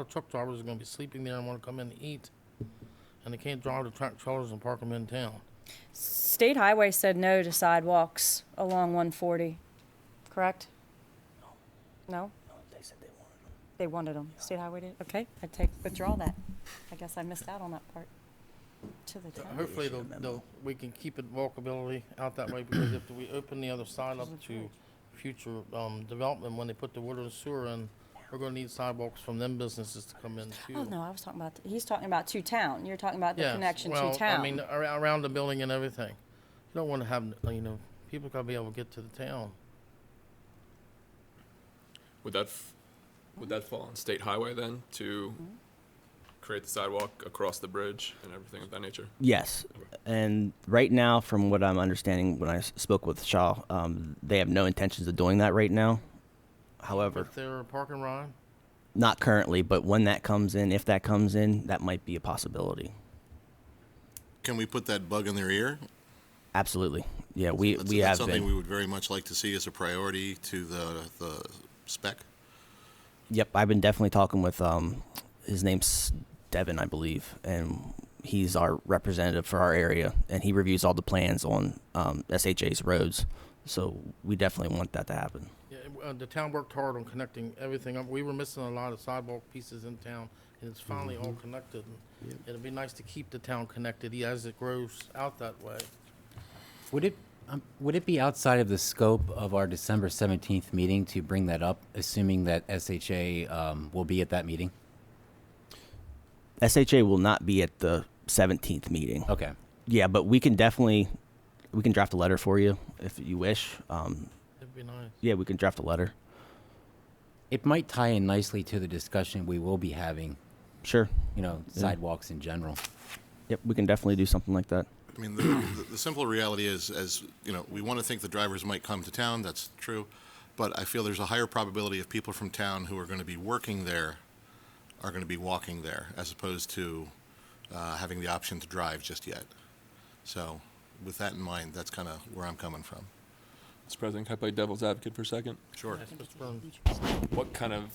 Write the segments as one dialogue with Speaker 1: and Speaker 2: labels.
Speaker 1: The truck drivers are gonna be sleeping there and wanna come in and eat, and they can't drive the track trailers and park them in town.
Speaker 2: State Highway said no to sidewalks along 140, correct? No? They wanted them. State Highway did? Okay, I take, withdraw that. I guess I missed out on that part. To the
Speaker 1: So
Speaker 2: town.
Speaker 1: Hopefully, they'll, they'll, we can keep it walkability out that way, because if we open the other side up to future, um, development, when they put the water and sewer in, we're gonna need sidewalks from them businesses to come in too.
Speaker 2: Oh, no, I was talking about, he's talking about to town. You're talking about the
Speaker 1: Yes,
Speaker 2: connection to
Speaker 1: well, I
Speaker 2: town.
Speaker 1: mean, ar- around the building and everything. You don't wanna have, you know, people gotta be able to get to the town.
Speaker 3: Would that, f- would that fall on state highway then to create the sidewalk across the bridge and everything of that nature?
Speaker 4: Yes, and right now, from what I'm understanding, when I s- spoke with Shaw, um, they have no intentions of doing that right now. However,
Speaker 1: If they're a parking ride,
Speaker 4: not currently, but when that comes in, if that comes in, that might be a possibility.
Speaker 5: Can we put that bug in their ear?
Speaker 4: Absolutely, yeah, we
Speaker 5: That's-
Speaker 4: we
Speaker 5: that's
Speaker 4: have
Speaker 5: something
Speaker 4: been.
Speaker 5: we would very much like to see as a priority to the the spec.
Speaker 4: Yep, I've been definitely talking with um, his name's Devin, I believe, and he's our representative for our area, and he reviews all the plans on um, SHA's roads. So we definitely want that to happen.
Speaker 1: Yeah, it- uh, the town worked hard on connecting everything up. We were missing a lot of sidewalk pieces in town, and it's finally all connected. And It'd be nice to keep the town connected yeah, as it grows out that way.
Speaker 6: Would it, um, would it be outside of the scope of our December 17th meeting to bring that up, assuming that SHA um, will be at that meeting?
Speaker 4: SHA will not be at the 17th meeting.
Speaker 6: Okay.
Speaker 4: Yeah, but we can definitely we can draft a letter for you if you wish. Um,
Speaker 1: It'd be nice.
Speaker 4: yeah, we can draft a letter.
Speaker 6: It might tie in nicely to the discussion we will be having,
Speaker 4: Sure.
Speaker 6: you know, sidewalks in general.
Speaker 4: Yep, we can definitely do something like that.
Speaker 5: I mean, the, the, the simple reality is, as you know, we want to think the drivers might come to town. That's true, but I feel there's a higher probability of people from town who are going to be working there are going to be walking there, as opposed to uh, having the option to drive just yet. So, with that in mind, that's kind of where I'm coming from.
Speaker 3: Mr. President, can I play devil's advocate for a second?
Speaker 5: Sure.
Speaker 1: Just run-
Speaker 3: What kind of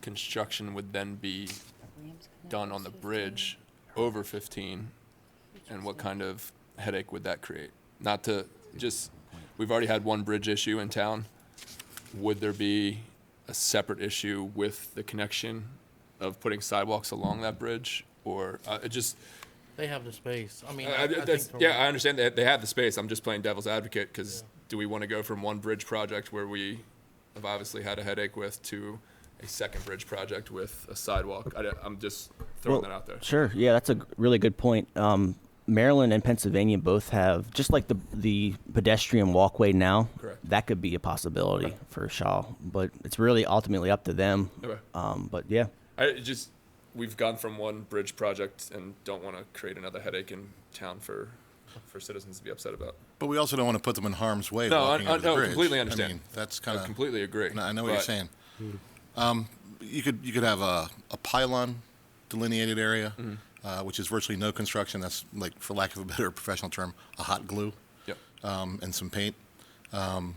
Speaker 3: construction would then be done on the bridge over 15? And what kind of headache would that create? Not to, just, we've already had one bridge issue in town. Would there be a separate issue with the connection of putting sidewalks along that bridge? Or, uh, it just,
Speaker 1: They have the space. I mean,
Speaker 3: I-
Speaker 1: I
Speaker 3: I-
Speaker 1: I think.
Speaker 3: Uh, that's-
Speaker 1: they're
Speaker 3: yeah, I
Speaker 1: right.
Speaker 3: understand that they have the space. I'm just playing devil's advocate because do we want to go from one bridge project where we have obviously had a headache with to a second bridge project with a sidewalk? I, am just throwing
Speaker 4: Well,
Speaker 3: that out there.
Speaker 4: Sure. Yeah, that's a g- really good point. Um, Maryland and Pennsylvania both have just like the the pedestrian walkway now.
Speaker 3: Correct.
Speaker 4: That could be a possibility for Shaw, but it's really ultimately up to them.
Speaker 3: Okay.
Speaker 4: Um, but yeah,
Speaker 3: I it just we've gone from one bridge project and don't want to create another headache in town for for citizens to be upset about.
Speaker 5: But we also don't want to put them in harm's way.
Speaker 3: No, I-
Speaker 5: walking
Speaker 3: I-
Speaker 5: under the
Speaker 3: no,
Speaker 5: bridge.
Speaker 3: completely
Speaker 5: I
Speaker 3: understand.
Speaker 5: mean, that's
Speaker 3: I
Speaker 5: kind of
Speaker 3: completely agree.
Speaker 5: Uh, And I know what you're
Speaker 3: but
Speaker 5: saying. Um, you could you could have a, a pylon delineated area,
Speaker 3: Mm-hmm.
Speaker 5: uh, which is virtually no construction. That's like, for lack of a better professional term, a hot glue
Speaker 3: Yep.
Speaker 5: um, and some paint. Um,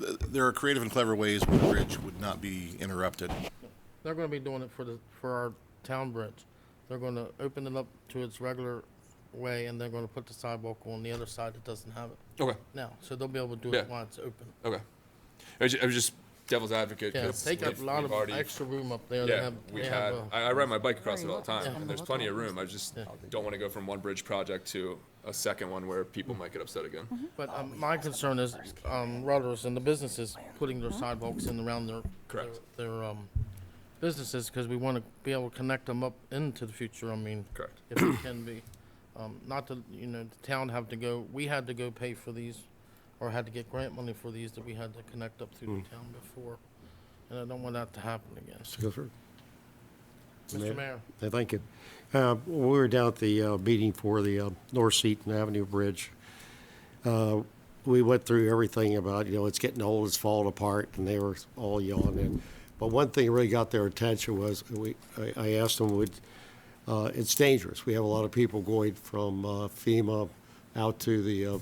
Speaker 5: th- there are creative and clever ways where the bridge would not be interrupted.
Speaker 1: They're gonna be doing it for the, for our town bridge. They're gonna open it up to its regular way, and they're gonna put the sidewalk on the other side that doesn't have it
Speaker 3: Okay.
Speaker 1: now. So they'll be able to do it
Speaker 3: Yeah.
Speaker 1: while it's open.
Speaker 3: Okay. I was ju- I was just devil's advocate
Speaker 1: Yeah,
Speaker 3: because
Speaker 1: they got a lot of extra room up there. They
Speaker 3: Yeah,
Speaker 1: have-
Speaker 3: we
Speaker 1: they have,
Speaker 3: had,
Speaker 1: uh,
Speaker 3: I, I ride my bike across it
Speaker 2: Sorry,
Speaker 3: all the
Speaker 2: what-
Speaker 3: time,
Speaker 2: yeah.
Speaker 3: and there's plenty of room, I just don't wanna go from one bridge project to a second one where people might get upset again.
Speaker 1: But um, my concern is um, rudders and the businesses putting their sidewalks in around their
Speaker 3: Correct.
Speaker 1: their, their um, businesses because we want to be able to connect them up into the future. I mean,
Speaker 3: Correct.
Speaker 1: if it can be, um, not to you know the town have to go. We had to go pay for these, or had to get grant money for these that we had to connect up through
Speaker 3: Hmm.
Speaker 1: the town before, and I don't want that to happen again.
Speaker 7: Go through.
Speaker 1: Mr. Mayor,
Speaker 7: I think it, uh, we were down at the uh, meeting for the uh, North Seaton Avenue Bridge. Uh, We went through everything about, you know, it's getting old, it's falling apart, and they were all yawning. But one thing that really got their attention was, we, I- I asked them, would, uh, it's dangerous. We have a lot of people going from uh, FEMA out to the uh,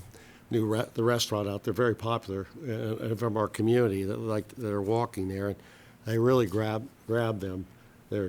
Speaker 7: new re- the restaurant out there, very popular, uh, and from our community that like that are walking there. And they really grab grab them.